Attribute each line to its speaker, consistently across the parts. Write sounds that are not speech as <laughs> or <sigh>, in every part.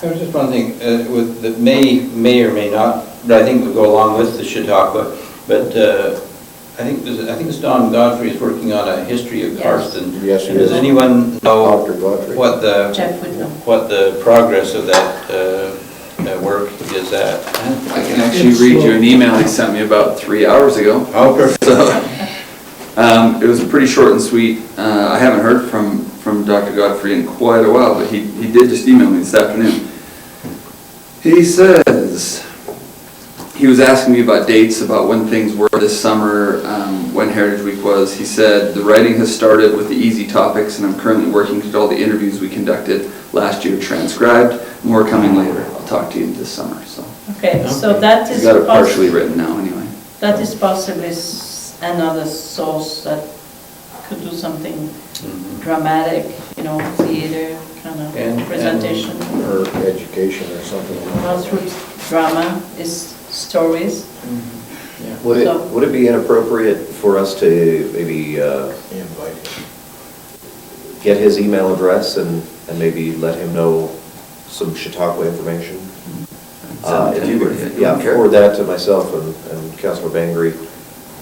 Speaker 1: There was just one thing uh, with, that may, may or may not, but I think would go along with the Chautauqua, but uh, I think, there's- I think it's Don Godfrey is working on a history of
Speaker 2: Yes.
Speaker 1: Carston.
Speaker 3: Yes, he
Speaker 1: Does
Speaker 3: is.
Speaker 1: anyone know
Speaker 3: Dr. Godfrey.
Speaker 1: what the,
Speaker 2: Jeff would know.
Speaker 1: what the progress of that uh, uh, work is at?
Speaker 4: I can actually read you an email he sent me about three hours ago.
Speaker 1: Oh, perfect.
Speaker 4: Um, It was pretty short and sweet. Uh, I haven't heard from, from Dr. Godfrey in quite a while, but he, he did just email me this afternoon. He says, he was asking me about dates, about when things were this summer, um, when Heritage Week was. He said, "The writing has started with the easy topics, and I'm currently working to get all the interviews we conducted last year transcribed. More coming later. I'll talk to you this summer," so.
Speaker 2: Okay, so that
Speaker 4: We
Speaker 2: is,
Speaker 4: got it
Speaker 2: poss-
Speaker 4: partially written now, anyway.
Speaker 2: that is possibly s- another source that could do something dramatic, you know, theater kind
Speaker 1: And-
Speaker 2: of
Speaker 1: and-
Speaker 2: presentation.
Speaker 3: Or education or something.
Speaker 2: Grassroots drama is stories.
Speaker 5: Would
Speaker 2: So-
Speaker 5: it, would it be inappropriate for us to maybe uh,
Speaker 3: Invite him.
Speaker 5: get his email address and, and maybe let him know some Chautauqua information? Uh, If you
Speaker 4: Send it
Speaker 5: could,
Speaker 4: to
Speaker 5: yeah,
Speaker 4: him, yeah.
Speaker 5: forward that to myself and, and Councilor Bangry,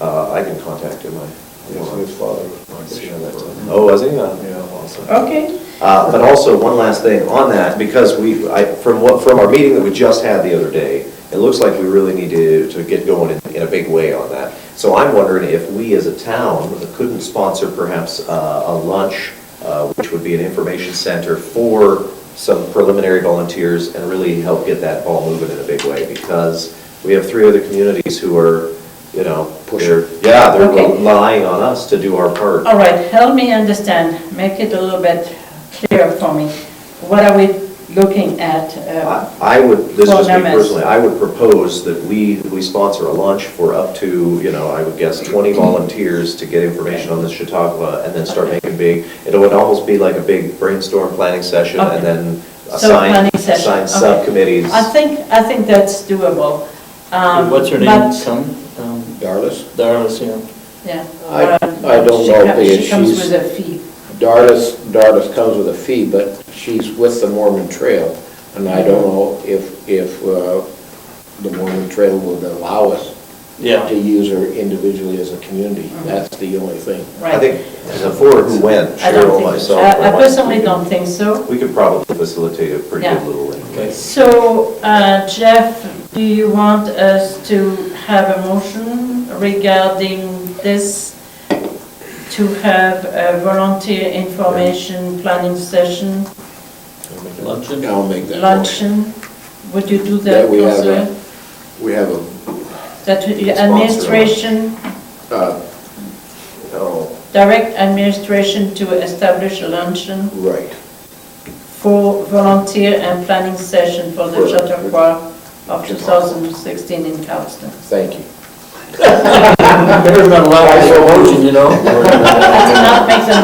Speaker 5: uh, I can contact him. I-
Speaker 3: Yes, his father was my bishop.
Speaker 5: Oh, was he? Uh,
Speaker 3: Yeah, awesome.
Speaker 2: Okay.
Speaker 5: Uh, But also, one last thing on that, because we, I, from what, from our meeting that we just had the other day, it looks like we really need to, to get going in, in a big way on that. So I'm wondering if we as a town couldn't sponsor perhaps uh, a lunch, uh, which would be an information center for some preliminary volunteers and really help get that ball moving in a big way, because we have three other communities who are, you know, they're, yeah, they're
Speaker 2: Okay. Oh,
Speaker 5: relying on us to do our part.
Speaker 2: All right, help me understand, make it a little bit clearer for me. What are we looking at? uh,
Speaker 5: I I would, this is
Speaker 2: Well,
Speaker 5: just me
Speaker 2: no, miss.
Speaker 5: personally, I would propose that we, we sponsor a lunch for up to, you know, I would guess 20 volunteers to get information on this Chautauqua and then start
Speaker 2: Okay.
Speaker 5: making big, it would almost be like a big brainstorm planning session
Speaker 2: Okay.
Speaker 5: and then
Speaker 2: So
Speaker 5: assign,
Speaker 2: planning session,
Speaker 5: assign
Speaker 2: okay.
Speaker 5: subcommittees.
Speaker 2: I think, I think that's doable. Um,
Speaker 6: What's her name,
Speaker 2: but-
Speaker 6: son? Um,
Speaker 3: Darlis?
Speaker 6: Darla's, yeah.
Speaker 2: Yeah.
Speaker 3: I-
Speaker 2: Uh,
Speaker 3: I don't
Speaker 2: she
Speaker 3: know
Speaker 2: com-
Speaker 3: if
Speaker 2: She comes
Speaker 3: she's-
Speaker 2: with a fee.
Speaker 3: Darlis, Darlis comes with a fee, but she's with the Mormon Trail, and I don't know if, if uh, the Mormon Trail would allow us
Speaker 6: Yeah.
Speaker 3: to use her individually as a community. That's the only thing.
Speaker 5: I
Speaker 2: Right.
Speaker 5: think the four who went,
Speaker 2: I don't
Speaker 5: Cheryl,
Speaker 2: think-
Speaker 5: myself.
Speaker 2: I-
Speaker 5: and
Speaker 2: I
Speaker 5: Mike,
Speaker 2: personally
Speaker 5: we could-
Speaker 2: don't think so.
Speaker 5: We could probably facilitate a pretty good
Speaker 2: Yeah.
Speaker 5: little.
Speaker 6: Okay.
Speaker 2: So uh, Jeff, do you want us to have a motion regarding this? To have a volunteer information planning session,
Speaker 6: Luncheon? <laughs>
Speaker 3: I'll make that motion.
Speaker 2: luncheon? Would you do that,
Speaker 3: That we have
Speaker 2: Counselor?
Speaker 3: a- We have a,
Speaker 2: That we- administration,
Speaker 3: uh,
Speaker 5: Oh,
Speaker 2: direct administration to establish a luncheon?
Speaker 3: right.
Speaker 2: for volunteer and planning session for the
Speaker 3: For-
Speaker 2: Chautauqua of 2016 in Charleston.
Speaker 3: Thank you.
Speaker 6: Better not allow it to you <laughs> know?
Speaker 2: I did not make the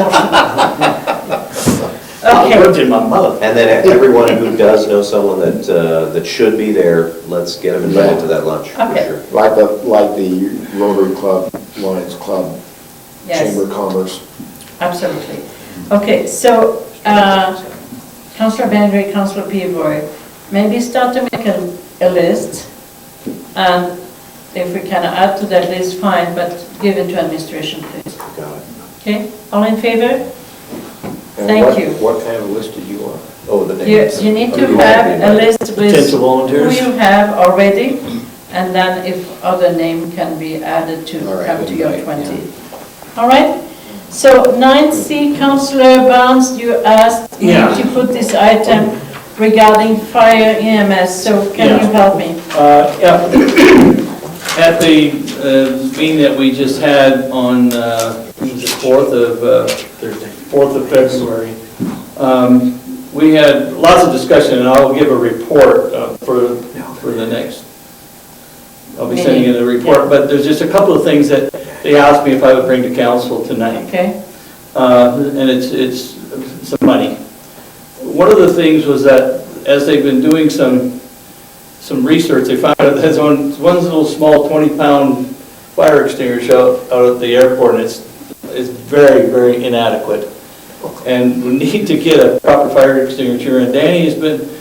Speaker 2: motion. Okay,
Speaker 3: <laughs>
Speaker 6: Words in my mouth.
Speaker 5: And then everyone who does know someone that, uh, that should be there, let's get them invited to that lunch, for
Speaker 2: Okay.
Speaker 5: sure.
Speaker 3: Like the, like the Rotary Club, Lions Club, Chamber
Speaker 2: yes,
Speaker 3: of Commerce.
Speaker 2: absolutely. Okay, so uh, Councilor Bantry, Councilor Pivoy, maybe start to make a a list, and if we can add to that list, fine, but give it to administration, please.
Speaker 3: Got it.
Speaker 2: Okay, all in favor?
Speaker 3: And
Speaker 2: Thank
Speaker 3: what-
Speaker 2: you.
Speaker 3: What kind of list did you want?
Speaker 5: Oh, the
Speaker 2: You,
Speaker 5: names.
Speaker 2: you need to
Speaker 5: Okay.
Speaker 2: have a list with
Speaker 6: Potential
Speaker 2: who
Speaker 6: volunteers?
Speaker 2: you have already, and then if other name can be added to
Speaker 3: All right,
Speaker 2: come to your
Speaker 3: right,
Speaker 2: 20. All right? So 9C, Councillor Barnes, you asked me
Speaker 6: Yeah.
Speaker 2: to put this item regarding fire EMS, so can you
Speaker 6: Yeah.
Speaker 2: help me?
Speaker 6: Uh, yeah. <coughs> At the uh, meeting that we just had on uh, the 4th of, uh, 4th of February, um, we had lots of discussion, and I'll give a report uh, for, for the next, I'll be sending in a report, but there's just a couple of things that they asked me if I would bring to council tonight.
Speaker 2: Okay?
Speaker 6: Uh, and it's, it's some money. One of the things was that, as they've been doing some, some research, they found out there's one, one little small 20-pound fire extinguisher out, out at the airport, and it's, it's very, very inadequate. And we need to get a proper fire extinguisher, and Danny has been